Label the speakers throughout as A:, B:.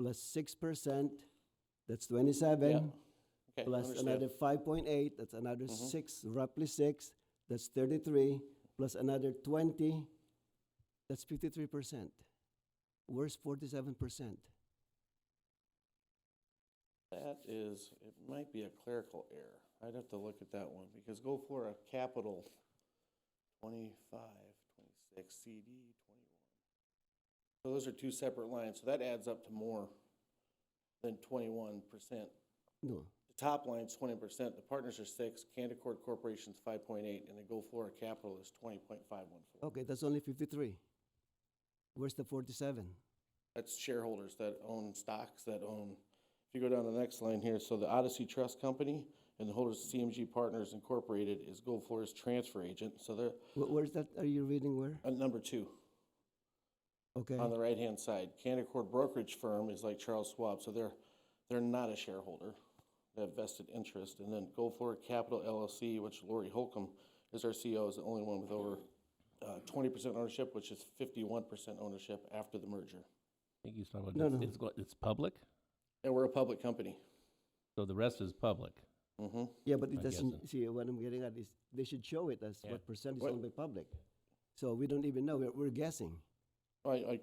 A: plus six percent, that's twenty-seven,
B: Okay,
A: plus
B: understand.
A: another five point eight, that's another
C: Mm-hmm.
A: six, roughly six, that's thirty-three, plus another twenty, that's fifty-three percent. Where's forty-seven percent?
B: That is, it might be a clerical error. I'd have to look at that one, because go for a capital twenty-five, twenty-six, CD twenty-one. So those are two separate lines, so that adds up to more than twenty-one percent.
A: No,
B: The top line's twenty percent, the partners are six, Canaccord Corporation's five point eight, and the Go Flora Capital is twenty point five one four.
A: okay, that's only fifty-three. Where's the forty-seven?
B: That's shareholders that own stocks, that own, if you go down to the next line here, so the Odyssey Trust Company and the holders of CMG Partners Incorporated is Gold Flora's transfer agent, so they're
A: Where's that, are you reading where?
B: at number two
A: Okay,
B: on the right-hand side. Canaccord Brokerage Firm is like Charles Schwab, so they're, they're not a shareholder. They have vested interest. And then Gold Flora Capital LLC, which Lori Holcomb is our CEO, is the only one with over uh, twenty percent ownership, which is fifty-one percent ownership after the merger.
C: think he's talking
A: No,
C: about, it's-
A: no.
C: it's, go- it's public,
B: And we're a public company.
C: so the rest is public.
B: Mm-hmm.
A: yeah, but
C: I
A: it
C: guess
A: doesn't, see, what I'm getting at is, they should show it as
C: Yeah.
A: what percent is
B: What-
A: owned by public. So we don't even know, we're, we're guessing.
B: I, I,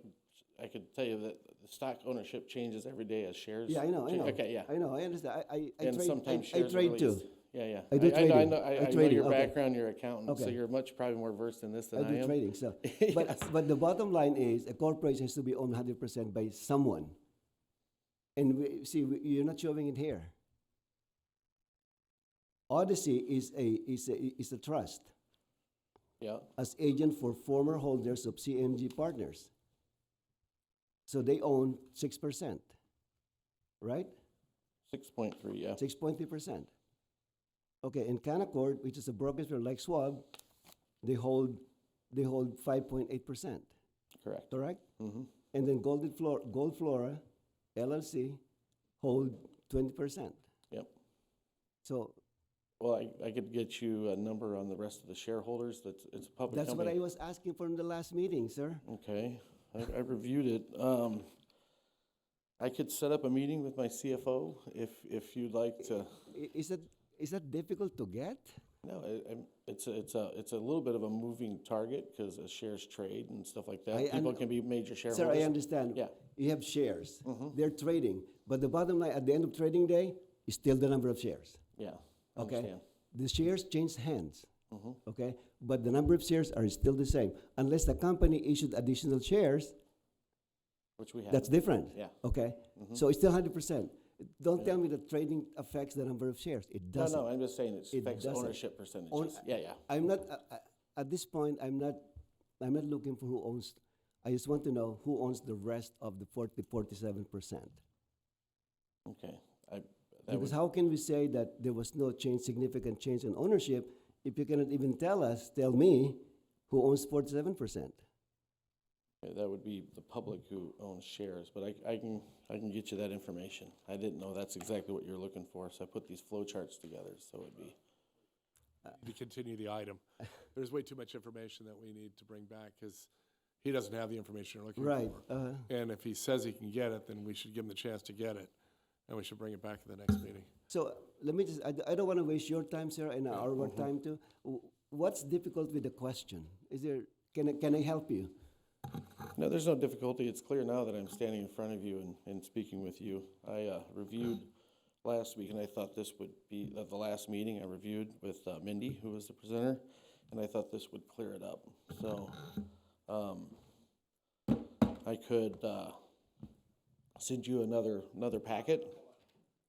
B: I could tell you that the stock ownership changes every day as shares.
A: Yeah, I know, I
B: change-
A: know.
B: Okay, yeah.
A: I know, I understand. I, I, I
B: And
A: trade, I,
B: sometimes
A: I
B: shares are
A: trade too.
B: released. Yeah, yeah.
A: I do
B: know- I
A: trading.
B: know, I,
A: I
B: I know
A: trading,
B: your
A: okay.
B: background, you're accountant, so
A: Okay.
B: you're much probably more versed in this
A: I
B: than I
A: do
B: am.
A: trading, so. But, but the bottom line is, a corporation has to be owned hundred percent by someone. And we, see, we- you're not showing it here. Odyssey is a, is a, is a trust
B: Yeah,
A: as agent for former holders of CMG Partners. So they own six percent, right?
B: six point three, yeah.
A: six point three percent. Okay, in Canaccord, which is a brokerage firm like Schwab, they hold, they hold five point eight percent,
B: Correct.
A: correct?
B: Mm-hmm.
A: And then Golden Flora, Gold Flora LLC hold twenty percent.
B: Yep.
A: So
B: Well, I, I could get you a number on the rest of the shareholders. That's, it's a public
A: that's what I
B: company.
A: was asking from the last meeting, sir.
B: Okay, I, I reviewed it. Um, I could set up a meeting with my CFO if, if you'd like to.
A: I- Is that, is that difficult to get?
B: No, I- I'm- it's, a- it's a, it's a little bit of a moving target because as shares trade and stuff like
A: I
B: that, people
A: un-
B: can be major
A: Sir, I
B: shareholders.
A: understand.
B: Yeah.
A: You have shares, they're trading, but the bottom line, at the end of trading day, is still the number of shares.
B: Yeah, I
A: Okay,
B: understand. Mm-hmm.
A: the shares change hands, okay? But the number of shares are still the same, unless the company issued additional shares,
B: Which we have.
A: that's different.
B: Yeah. Mm-hmm.
A: Okay, so it's still hundred percent. Don't tell me that trading affects the number of shares, it
B: No,
A: doesn't.
B: no, I'm just saying it
A: It
B: affects
A: doesn't.
B: ownership
A: Own-
B: percentages. Yeah, yeah.
A: I'm not, uh, uh, at this point, I'm not, I'm not looking for who owns, I just want to know who owns the rest of the forty, forty-seven percent.
B: Okay. I, that
A: Because
B: was,
A: how can we say that there was no change, significant change in ownership, if you cannot even tell us, tell me, who owns forty-seven percent?
B: that would be the public who owns shares, but I, I can, I can get you that information. I didn't know that's exactly what you're looking for, so I put these flow charts together, so it'd be.
D: to continue the item. There's way too much information that we need to bring back because he doesn't have the information you're looking
A: Right,
D: for.
A: uh,
B: uh-huh.
D: And if he says he can get it, then we should give him the chance to get it, and we should bring it back at the next meeting.
A: so let me just, I, d- I don't wanna waste your time, sir, and our our
B: Mm-hmm.
A: time too. W- What's difficult with the question? Is there, can I, can I help you?
B: No, there's no difficulty. It's clear now that I'm standing in front of you and, and speaking with you. I uh, reviewed last week, and I thought this would be, at the last meeting, I reviewed with uh, Mindy, who was the presenter, and I thought this would clear it up. So, um, I could, uh, send you another, another packet.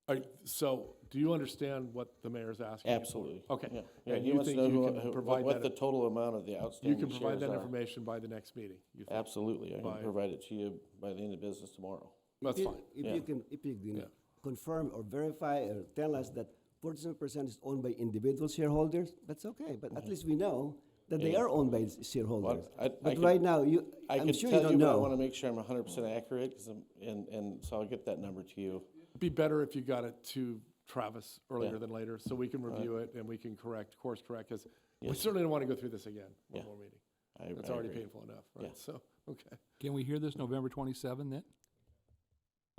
D: All right, so do you understand what the mayor's asking? you for?
B: Absolutely. Yeah.
D: Okay.
B: Yeah,
D: And
B: he
D: you
B: wants to know
D: think you
B: who-
D: can
B: who-
D: provide
B: what the
D: that,
B: total amount of the
D: you
B: outstanding
D: can
B: shares
D: provide that
B: are.
D: information by the next meeting? you think?
B: Absolutely. I can
D: by-
B: provide it to you by the end of business tomorrow.
D: That's
A: If-
D: fine.
A: If
B: Yeah.
A: you can, if you can
D: Yeah.
A: confirm or verify or tell us that forty-seven percent is owned by individual shareholders, that's okay, but at least we know that they
B: Mm-hmm. Yeah.
A: are owned by s- shareholders.
B: I- I
A: But
B: can-
A: right now, you,
B: I
A: I'm
B: can
A: sure you
B: tell you,
A: don't
B: but I want to
A: know.
B: make sure I'm hundred percent accurate, 'cause I'm- and, and so I'll get that number to you.
D: Be better if you got it to Travis
B: Yeah.
D: earlier than later, so we can review it and we can correct, course correct, because we
B: Yes.
D: certainly don't want to go through this again,
B: Yeah.
D: one more meeting.
B: I-
D: That's
B: I
D: already
B: agree.
D: painful enough, right?
B: Yeah.
D: So, okay.
E: Can we hear this November 27 then?